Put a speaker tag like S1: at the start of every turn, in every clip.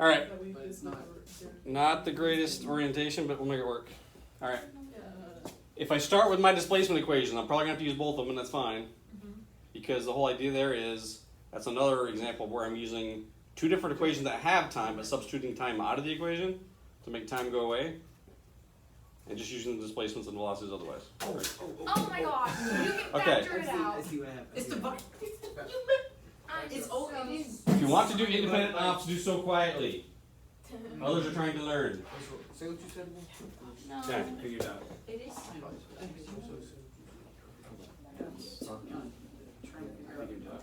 S1: All right.
S2: But it's not.
S1: Not the greatest orientation, but we'll make it work. All right. If I start with my displacement equation, I'm probably gonna have to use both of them, and that's fine, because the whole idea there is that's another example where I'm using two different equations that have time, but substituting time out of the equation to make time go away, and just using the displacements and velocities otherwise.
S3: Oh my gosh, you can
S1: Okay.
S2: I
S3: factor it
S2: see,
S3: out.
S2: I see what happened.
S4: It's
S2: Yeah.
S4: divine.
S3: I'm
S4: It's
S3: so-
S4: old. It is.
S1: If you want to do independent ops, do so quietly. Others are trying to learn.
S2: Say what you said. again.
S3: No.
S1: Okay, figure it out.
S4: It is. time. Took me on trying to figure out.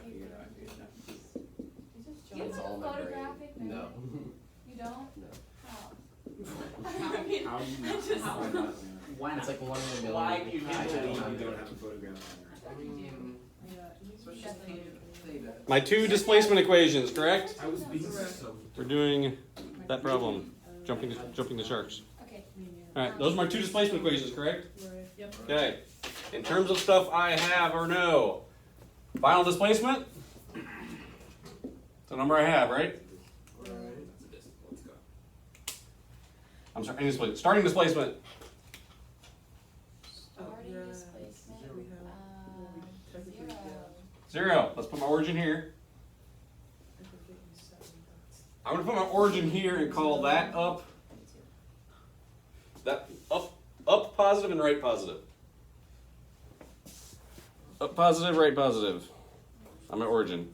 S3: You have
S5: It's
S3: a
S5: all in my brain.
S3: photographic memory?
S5: No.
S3: You don't?
S5: No.
S3: Oh. I mean,
S4: How do you not-
S3: just-
S4: how do you not- Why not?
S5: It's like one in a million.
S4: Why do you
S5: I
S4: not
S5: don't
S4: believe
S5: know.
S4: you don't have a photograph memory?
S2: Um,
S4: So it's just theta- theta.
S1: My two displacement equations, correct?
S4: I was being so.
S1: We're doing that problem, jumping the, jumping the sharks.
S3: Okay.
S1: All right, those are my two displacement equations, correct?
S6: Yep.
S1: Okay. In terms of stuff I have or know, final displacement. The number I have, right?
S2: Right.
S4: Let's go.
S1: I'm sorry, any displacement. Starting displacement.
S3: Starting displacement.
S6: we have-
S3: um,
S6: technically,
S3: zero.
S1: Zero. Let's put my origin here. I'm gonna put my origin here and call that up. That up, up positive and right positive. Up positive, right positive. I'm at origin.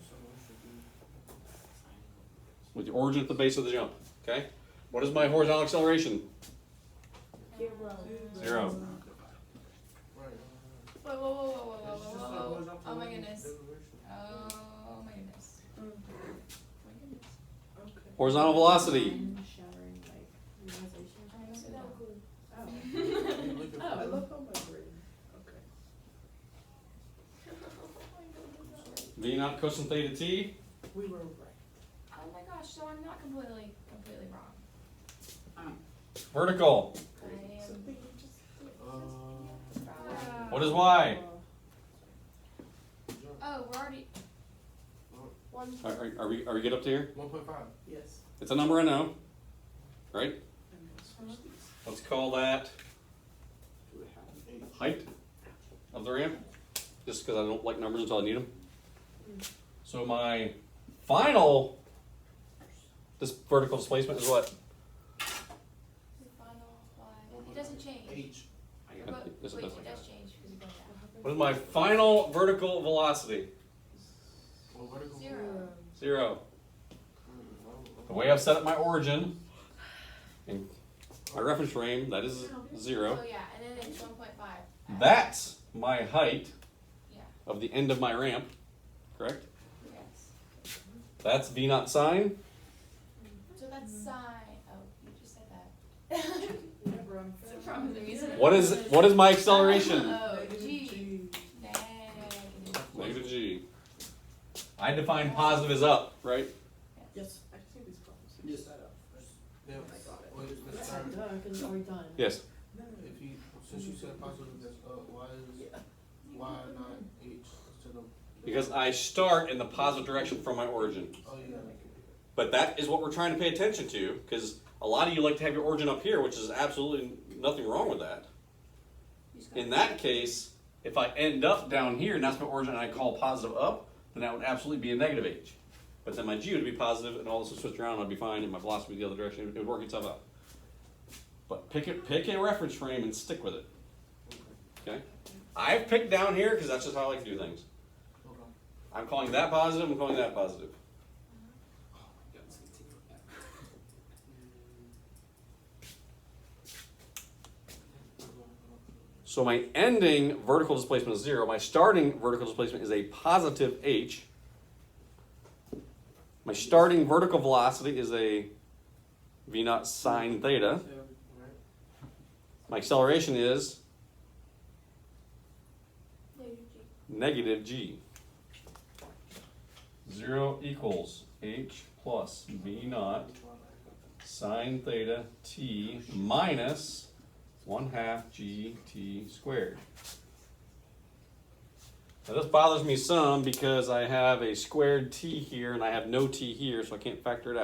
S1: With the origin at the base of the jump. Okay. What is my horizontal acceleration? Zero.
S2: Right.
S3: Whoa, whoa, whoa, whoa, whoa, whoa,
S2: It's just
S3: whoa,
S2: like
S3: whoa,
S2: going up
S3: Oh
S2: and
S3: my
S2: then
S3: goodness.
S2: reverse.
S3: Oh my goodness. My goodness.
S4: Oh.
S1: Horizontal velocity.
S3: I don't see that.
S2: You look
S3: Oh
S2: at-
S6: I love how my brain. Okay.
S1: V naught cosine theta t.
S6: We were right.
S3: Oh my gosh, so I'm not completely, completely wrong.
S1: Vertical.
S3: I am-
S6: Something you just.
S2: Uh,
S1: What is y?
S3: Oh, we're already. One.
S1: Are, are, are we are we good up to here?
S2: 1.5.
S6: Yes.
S1: It's a number I know. Right?
S6: I'm gonna switch these.
S1: Let's call that
S2: Do it half. Eight.
S1: height of the ramp, just because I don't like numbers until I need them. So my final this vertical displacement is what?
S3: Final Y. It doesn't change.
S2: H.
S4: I got
S3: But
S4: it.
S1: Yes, it
S3: wait,
S1: does.
S3: it does change because you got
S1: What is my final vertical velocity?
S2: Well, vertical.
S3: that. Zero.
S6: Um,
S1: Zero.
S2: Hmm, well,
S1: The way I've set up my origin and my reference frame, that is zero.
S3: So Oh, yeah, and then it's one point five.
S1: That's my height
S3: Yeah.
S1: of the end of my ramp, correct?
S3: Yes.
S1: That's V naught sine.
S3: So that's sine. Oh, you just said that.
S6: Remember, I'm.
S3: It's a problem with the music.
S1: What is what is my acceleration?
S3: Oh,
S6: Negative
S3: G.
S6: G.
S3: Negative.
S1: Negative G. I define positive as up, right?
S6: Yes, I can see these problems.
S2: Yes.
S6: Set up.
S2: Yeah.
S6: I got it.
S2: Well, it's the
S6: Yes,
S2: same.
S6: I'm done, 'cause it's already done.
S1: Yes.
S6: No, no, no.
S2: If you, since you said positive, that's, uh, why is,
S6: Yeah.
S2: why not H instead of?
S1: Because I start in the positive direction from my origin.
S2: Oh,
S6: uh,
S2: yeah.
S1: But that is what we're trying to pay attention to, because a lot of you like to have your origin up here, which is absolutely nothing wrong with that. In that case, if I end up down here and that's my origin and I call positive up, then that would absolutely be a negative H. But then my G would be positive and all this would switch around and I'd be fine and my velocity would be the other direction. It would work itself out. But pick it, pick a reference frame and stick with it. Okay? I've picked down here because that's just how I like to do things.
S2: Okay.
S1: I'm calling that positive, I'm calling that positive.
S4: Yeah, it's gonna take forever.
S1: So my ending vertical displacement is zero. My starting vertical displacement is a positive h. My starting vertical velocity is a v naught sine theta.
S2: Yeah, right.
S1: My acceleration is
S3: Negative G.
S1: negative g. Zero equals h plus v naught sine theta t minus one half g t squared. Now this bothers me some because I have a squared t here and I have no t here, so I can't factor it out.